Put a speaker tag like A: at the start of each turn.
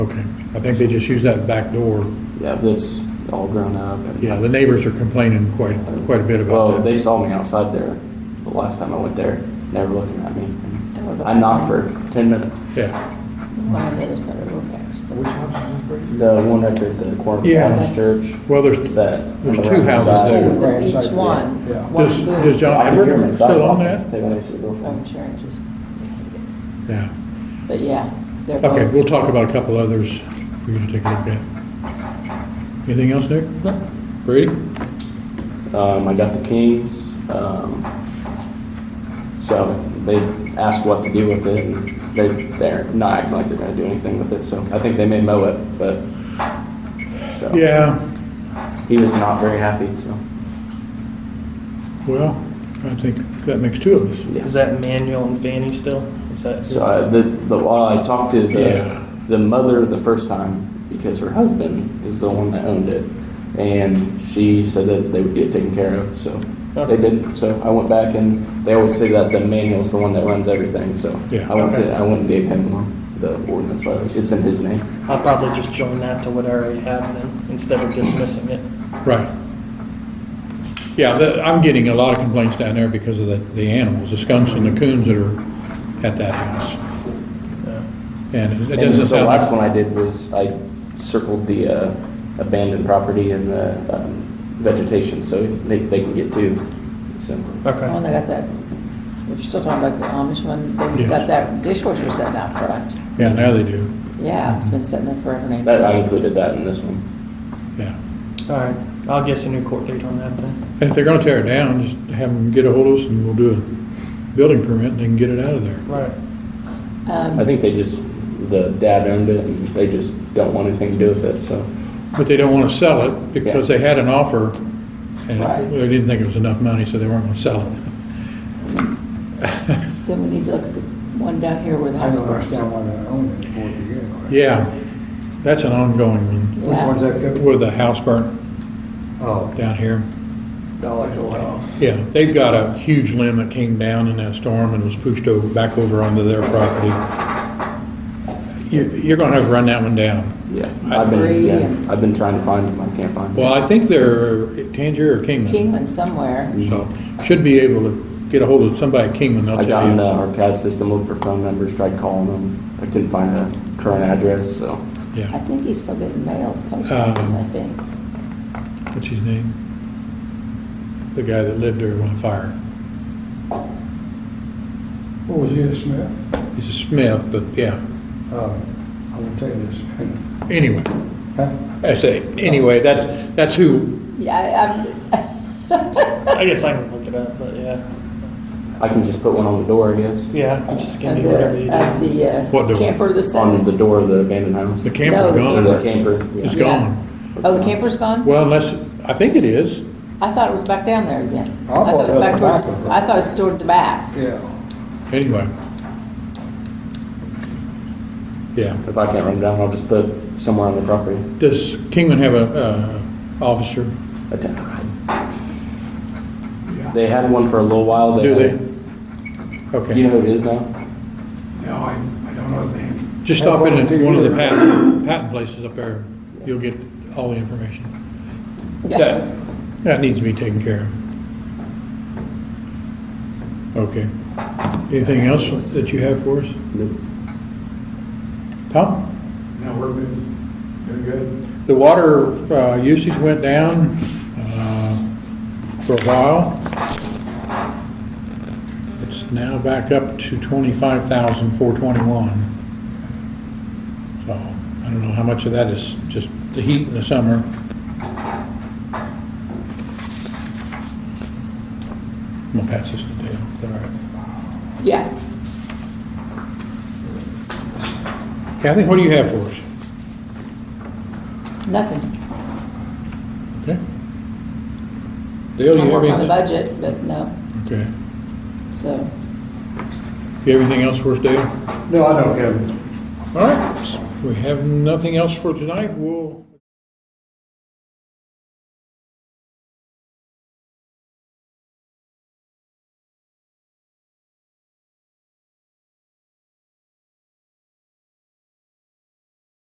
A: Okay, I think they just use that back door.
B: Yeah, that's all grown up. And,
A: Yeah, the neighbors are complaining quite, quite a bit
B: well,
A: about
B: they
A: that.
B: saw me outside there the last time I went there. and They were looking at me.
A: Mm-hmm.
B: I knocked for 10 minutes.
A: Yeah,
C: One on the other side of Rofax.
D: Which house is this?
B: The one right there at the corner of
A: Yeah.
B: the Baptist
C: That's-
B: church.
A: well,
B: It's
A: there's,
B: that.
A: There's
B: on
A: two
B: the right hand
A: houses
B: side.
D: there.
C: Two,
D: Right,
C: each
D: right,
C: one.
D: yeah.
C: One
A: Does-
C: booth.
A: does John-
B: I can hear them inside.
A: Still on that?
B: They went to go for
C: Phone charge is-
A: yeah.
C: But yeah, they're both.
A: Okay, we'll talk about a couple others for you to take a look at. Anything else, Nick? No. Brady?
B: it. Um, I got the Kings. Um, so they asked what to do with it. And they, they're not acting like they're going to do anything with it. So I think they may mow it, but. So
A: Yeah,
B: he was not very happy. So.
A: well, I think that makes two of us.
B: Yeah.
E: Is that Manuel and Fanny still? Is that
B: So I, the, the well, I talked to the,
A: Yeah.
B: the mother the first time because her husband is the one that owned it, and she said that they would get taken care of. So
E: Okay.
B: they did. So I went back, and they always say that the manual's the one that runs everything. So
A: Yeah.
B: I went
A: Okay.
B: to, I went and gave him the ordinance violation. It's in his name.
E: I'll probably just join that to what I already have then instead of dismissing it.
A: Right. Yeah, the, I'm getting a lot of complaints down there because of the, the animals, the skunks and the coons that are at that house.
E: Yeah.
A: And it
B: and
A: doesn't
B: the
A: sound
B: last
A: like,
B: one I did was I circled the uh, abandoned property and the um, vegetation, so they, they can get to. So.
C: Oh,
E: Okay.
C: they got that, we're still talking about the Amish one,
A: Yeah.
C: they've got that dishwasher sitting out front.
A: yeah, now they do,
C: Yeah, it's been sitting there forever. and
B: That, I
C: ever.
B: included that in this one.
A: yeah.
E: All right. I'll guess a new court date on that then.
A: And if they're gonna tear it down, just have them get ahold of us and we'll do a building permit and they can get it out of there.
E: Right.
B: I think they just, the dad owned it, and they just don't want anything to do with it, so.
A: But they don't wanna sell it because they had an offer and
C: Right.
A: they didn't think it was enough money, so they weren't gonna sell it.
C: Then we need to look at the one down here where the
D: I
C: house
D: don't
C: burns down.
D: understand why they own it before it began. right?
A: Yeah, that's an ongoing one.
D: Which
C: Yeah.
D: one's that, Kevin?
A: With the house burnt
D: Oh,
A: down here.
D: Dollar Hill House.
A: Yeah, they've got a huge limb that came down in that storm and was pushed over, back over onto their property. You, you're gonna have to run that one down.
B: Yeah,
A: I
B: I've been,
C: agree.
B: yeah, I've been trying to find them, I can't find
A: Well,
B: them.
A: I think they're Tangier or Kingman.
C: Kingman somewhere.
A: So, should be able to get a hold of somebody at Kingman, they'll
B: I got uh,
A: tell
B: in the,
A: you.
B: our CAD system, looked for phone numbers, tried calling them, I couldn't find a current address, so.
C: I
A: Yeah,
C: think he's still getting mail, post office, I
A: Um,
C: think.
A: what's his name? The guy that lived there when the fire.
D: What was his, Smith?
A: He's a Smith, but yeah,
D: Uh, I will tell you this.
A: anyway,
D: Huh?
A: I say, anyway, that, that's who,
C: Yeah, I, I,
E: I guess I can look it up, but yeah.
B: I can just put one on the door, I guess,
E: Yeah, I'm just gonna
C: of
E: do whatever you
C: the, of
E: do.
C: the
A: What do
C: uh,
A: we-
C: camper, the
B: on the
C: seven.
B: door of the abandoned house.
A: the
C: No,
A: camper
B: Or
C: the
A: gone.
B: the camper,
A: It's
B: yeah.
C: Yeah.
A: gone.
C: Oh, the camper's gone?
A: Well, unless, I think it is.
C: I thought it was back down there again.
D: I thought
C: it was
D: it was
C: back
D: back
C: towards,
D: of it.
C: I thought it was toward the back.
D: Yeah.
A: Anyway. Yeah.
B: If I can't run it down, I'll just put somewhere on the property.
A: Does Kingman have a, uh, officer?
B: Okay. They had one for a little while, they.
A: Do
B: had-
A: they?
B: You know
A: Okay.
B: who it is now?
F: No, I, I don't know his name.
A: Just stop in at one of the patent, patent places up there. You'll get all the information.
C: Yeah.
A: That, that needs to be taken care of. Okay. Anything else that you have for us? Tom?
F: No, we're been, been good.
A: The water uh, usage went down uh, for a while. It's now back up to 25,421. So I don't know how much of that is just the heat in the summer. I'm gonna pass this to Dale. Is that all right?
C: Yeah.
A: Kathy, what do you have for us?
C: Nothing.
A: Okay? Dale, you
C: I
A: have
C: work on the
A: anything?
C: budget, but no,
A: Okay.
C: so,
A: You have anything else for us, Dale?
D: No, I don't, Kevin.
A: All right, we have nothing else for tonight, we'll